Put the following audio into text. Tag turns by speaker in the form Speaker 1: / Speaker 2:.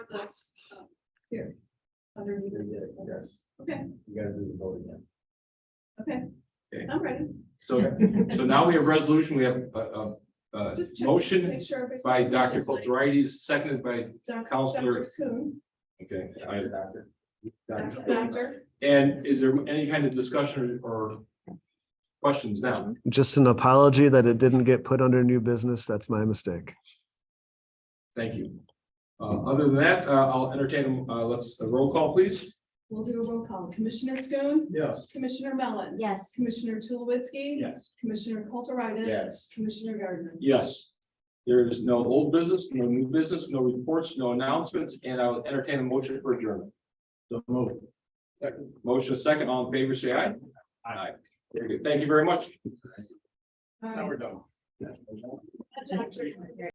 Speaker 1: That's um, here. Under either bid.
Speaker 2: Yes.
Speaker 1: Okay.
Speaker 2: You gotta do the vote again.
Speaker 1: Okay.
Speaker 3: Okay.
Speaker 1: I'm ready.
Speaker 3: So, so now we have resolution, we have a, a, a
Speaker 1: Just check-
Speaker 3: motion
Speaker 1: make sure everybody's-
Speaker 3: by Dr. Kulturitis, seconded by,
Speaker 1: Doc-
Speaker 3: Counselor-
Speaker 1: Dr. Schoen,
Speaker 3: okay. I-
Speaker 2: Doctor.
Speaker 1: Dr.
Speaker 2: Doctor.
Speaker 1: Doctor.
Speaker 3: And is there any kind of discussion or- or questions now?
Speaker 4: Just an apology that it didn't get put under new business. That's my mistake.
Speaker 3: Thank you. Uh, other than that, uh, I'll entertain, uh, let's, a roll call, please.
Speaker 1: We'll do a roll call. Commissioner Schoen,
Speaker 2: Yes.
Speaker 1: Commissioner Mellon.
Speaker 5: Yes,
Speaker 1: Commissioner Tulowitzki.
Speaker 2: Yes.
Speaker 1: Commissioner Kulturitis.
Speaker 2: Yes.
Speaker 1: Commissioner Gardner.
Speaker 3: Yes. There is no old business, no new business, no reports, no announcements, and I'll entertain a motion for adjournment.
Speaker 2: So move.
Speaker 3: Motion second, all in favor, say aye. Aye. Very good. Thank you very much.
Speaker 1: All right.
Speaker 2: Now we're done.
Speaker 1: Dr.